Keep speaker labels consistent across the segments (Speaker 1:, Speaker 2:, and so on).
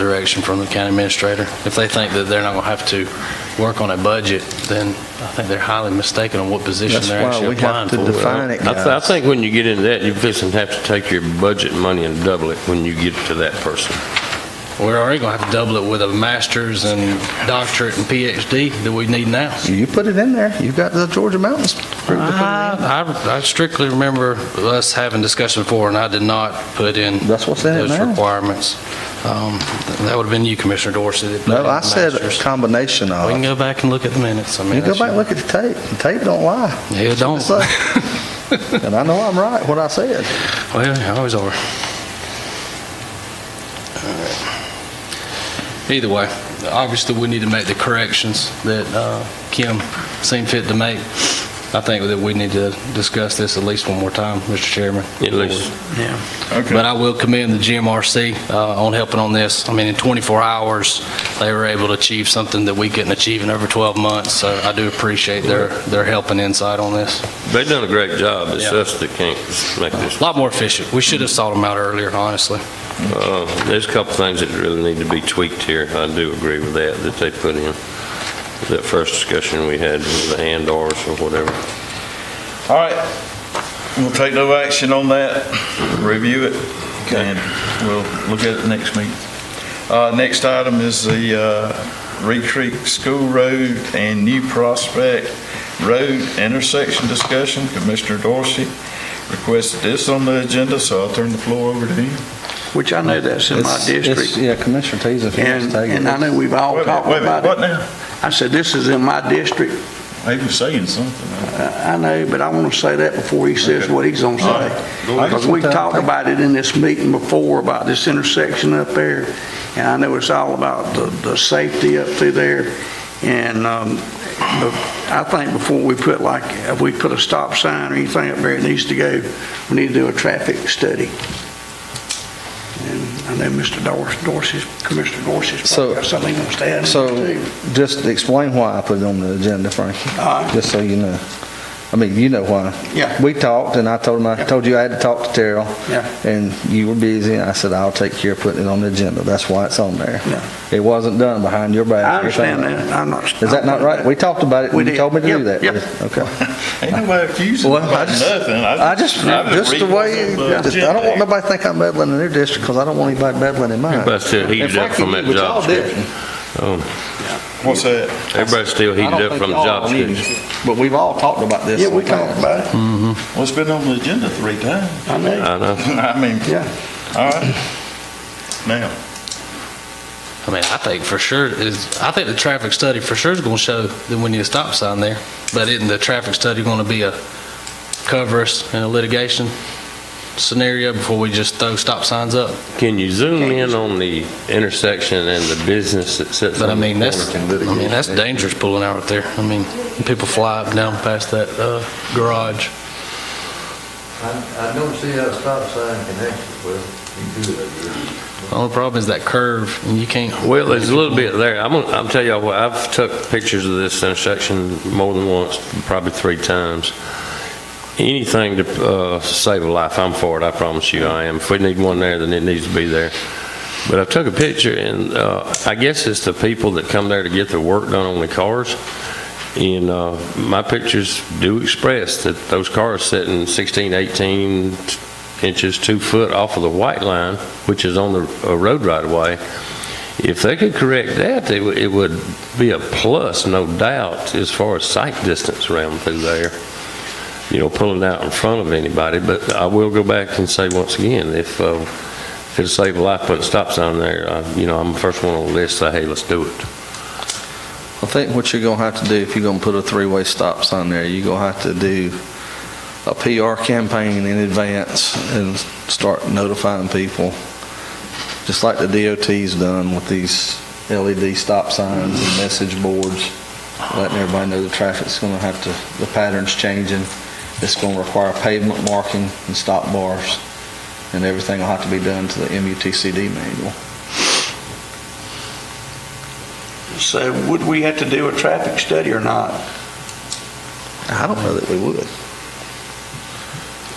Speaker 1: direction from the county administrator. If they think that they're not going to have to work on a budget, then I think they're highly mistaken on what position
Speaker 2: That's
Speaker 1: they're
Speaker 2: why
Speaker 1: actually
Speaker 2: we have
Speaker 1: applying
Speaker 2: to
Speaker 1: for.
Speaker 2: define it,
Speaker 3: I, th- I
Speaker 2: guys.
Speaker 3: think when you get into that, you fixing to have to take your budget money and double it when you get to that person.
Speaker 1: We're already going to have to double it with a master's and doctorate and PhD that we need now.
Speaker 2: You put it in there. You've got the Georgia Mountains. group to put it in.
Speaker 1: I I strictly remember us having discussion before, and I did not put in
Speaker 2: That's what's in it
Speaker 1: those
Speaker 2: now.
Speaker 1: requirements. Um, That would have been you, Commissioner Dorsey. that put in
Speaker 2: No,
Speaker 1: the
Speaker 2: I said a
Speaker 1: master's.
Speaker 2: combination
Speaker 1: We can go
Speaker 2: of.
Speaker 1: back and look at the minutes. I mean,
Speaker 2: You go
Speaker 1: that's-
Speaker 2: back, and look at the tape. The tape don't lie.
Speaker 1: Yeah, don't.
Speaker 2: It's like- And I know I'm right, what I said.
Speaker 1: Well, Oh, yeah, always are. Either way, obviously, we need to make the corrections that uh, Kim seemed fit to make. I think that we need to discuss this at least one more time, Mr. Chairman.
Speaker 3: At least,
Speaker 1: But I will commend the GMRC uh, on helping on this. I mean, in 24 hours, they were able to achieve something that we couldn't achieve in over 12 months, so I do appreciate their, their help and insight on this.
Speaker 3: they've done a great job. It's
Speaker 1: Yeah.
Speaker 3: us that can't make
Speaker 1: A
Speaker 3: this.
Speaker 1: lot more efficient. We should have sought them out earlier, honestly.
Speaker 3: Uh, there's a couple things that really need to be tweaked here. I do agree with that, that they put in. That first discussion we had with the and/or's or whatever.
Speaker 4: All right, we'll take no action on that, review it, and we'll look at it next meeting. Uh, Next item is the uh, Reed Creek School Road and New Prospect Road intersection discussion. Commissioner Dorsey requested this on the agenda, so I'll turn the floor over to him.
Speaker 5: Which I know that's in my
Speaker 2: It's- it's-
Speaker 5: district.
Speaker 2: Yeah, Commissioner Tease, if he wants
Speaker 5: And,
Speaker 2: to take
Speaker 5: and I
Speaker 2: it.
Speaker 5: know we've all
Speaker 4: Wait a minute,
Speaker 5: talked
Speaker 4: wait a minute,
Speaker 5: about
Speaker 4: What
Speaker 5: it.
Speaker 4: now?
Speaker 5: I said, this is in my district.
Speaker 4: He was saying something.
Speaker 5: I I know, but I want to say that before he says what he's going to
Speaker 4: All right,
Speaker 5: say.
Speaker 4: go ahead.
Speaker 5: Because we talked about it in this meeting before, about this intersection up there. And I know it's all about the, the safety up through there. And, um, but I think before we put like, if we put a stop sign or anything up there, it needs to go, we need to do a traffic study. And I know Mr. Dors- Dorsey's, Commissioner Dorsey's
Speaker 2: So-
Speaker 5: probably got something he wants to add. in
Speaker 2: So
Speaker 5: there, too.
Speaker 2: just explain why I put it on the agenda, Frankie,
Speaker 5: All right.
Speaker 2: just so you know. I mean, you know why.
Speaker 5: Yeah.
Speaker 2: We talked and I told him, I
Speaker 5: Yeah.
Speaker 2: told you I had to talk to Terrell.
Speaker 5: Yeah.
Speaker 2: And you were busy and I said, I'll take care of putting it on the agenda. That's why it's on there.
Speaker 5: Yeah.
Speaker 2: It wasn't done behind your back.
Speaker 5: I
Speaker 2: or something.
Speaker 5: understand that, I'm not.
Speaker 2: Is that not right? We talked about it
Speaker 5: We
Speaker 2: and you
Speaker 5: did.
Speaker 2: told me to do
Speaker 5: Yep,
Speaker 2: that.
Speaker 5: yep.
Speaker 2: Okay.
Speaker 4: Ain't nobody accusing him
Speaker 2: Well, I
Speaker 4: about
Speaker 2: just-
Speaker 4: nothing.
Speaker 2: I just,
Speaker 4: I'm
Speaker 2: just the
Speaker 4: reading what's
Speaker 2: way,
Speaker 4: on the
Speaker 2: I don't
Speaker 4: agenda.
Speaker 2: want nobody to think I'm meddling in their district because I don't want anybody meddling in mine.
Speaker 3: Everybody's still
Speaker 2: And
Speaker 3: heated up
Speaker 2: Frankie
Speaker 3: from that
Speaker 2: did what y'all
Speaker 3: job
Speaker 2: did.
Speaker 3: description. Um,
Speaker 4: What's that?
Speaker 3: Everybody's still
Speaker 2: I don't
Speaker 3: heated up
Speaker 2: think
Speaker 3: from the
Speaker 2: y'all
Speaker 3: job
Speaker 2: knew,
Speaker 3: description.
Speaker 2: But we've all talked about this.
Speaker 5: Yeah, we
Speaker 2: in the past.
Speaker 5: talked about it.
Speaker 4: Well, it's been on the agenda three
Speaker 2: Mm-hmm.
Speaker 4: times.
Speaker 5: I know.
Speaker 3: I know.
Speaker 4: I mean,
Speaker 5: Yeah.
Speaker 4: all right. Now.
Speaker 1: I mean, I think for sure is, I think the traffic study for sure is going to show that we need a stop sign there. But isn't the traffic study going to be a cover us in a litigation scenario before we just throw stop signs up?
Speaker 3: Can you zoom in on the intersection and the business that sits
Speaker 1: But I
Speaker 3: on the
Speaker 1: mean, that's, I
Speaker 3: corner?
Speaker 1: mean, that's dangerous pulling out right there. I mean, people fly up and down past that uh, garage.
Speaker 6: I, I don't see how a stop sign connects with, you do it, you
Speaker 1: Only problem is that curve, and you can't.
Speaker 3: Well, there's a little bit there. I'm, gonna- I'll tell y'all what, I've took pictures of this intersection more than once, probably three times. Anything to, uh, save a life, I'm for it, I promise you I am. If we need one there, then it needs to be there. But I took a picture and, uh, I guess it's the people that come there to get their work done on the cars. And, uh, my pictures do express that those cars sitting 16, 18 inches, two foot off of the white line, which is on the, uh, road right of way. If they could correct that, it would, it would be a plus, no doubt, as far as sight distance around through there. You know, pulling out in front of anybody, but I will go back and say once again, if, uh, if it'll save a life putting stop sign there, uh, you know, I'm the first one on the list, say, hey, let's do it.
Speaker 2: I think what you're gonna have to do, if you're gonna put a three-way stop sign there, you're gonna have to do a PR campaign in advance and start notifying people, just like the DOT's done with these LED stop signs and message boards, letting everybody know the traffic's gonna have to, the pattern's changing. It's gonna require pavement marking and stop bars, and everything will have to be done to the MUTCD manual.
Speaker 5: So would we have to do a traffic study or not?
Speaker 2: I don't know that we would.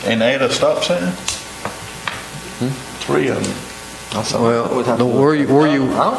Speaker 4: And add a stop sign?
Speaker 5: Three of them.
Speaker 2: That's something we'd
Speaker 6: Well,
Speaker 2: have to
Speaker 6: don't
Speaker 2: look
Speaker 6: worry,
Speaker 2: at.
Speaker 6: where you,
Speaker 2: I don't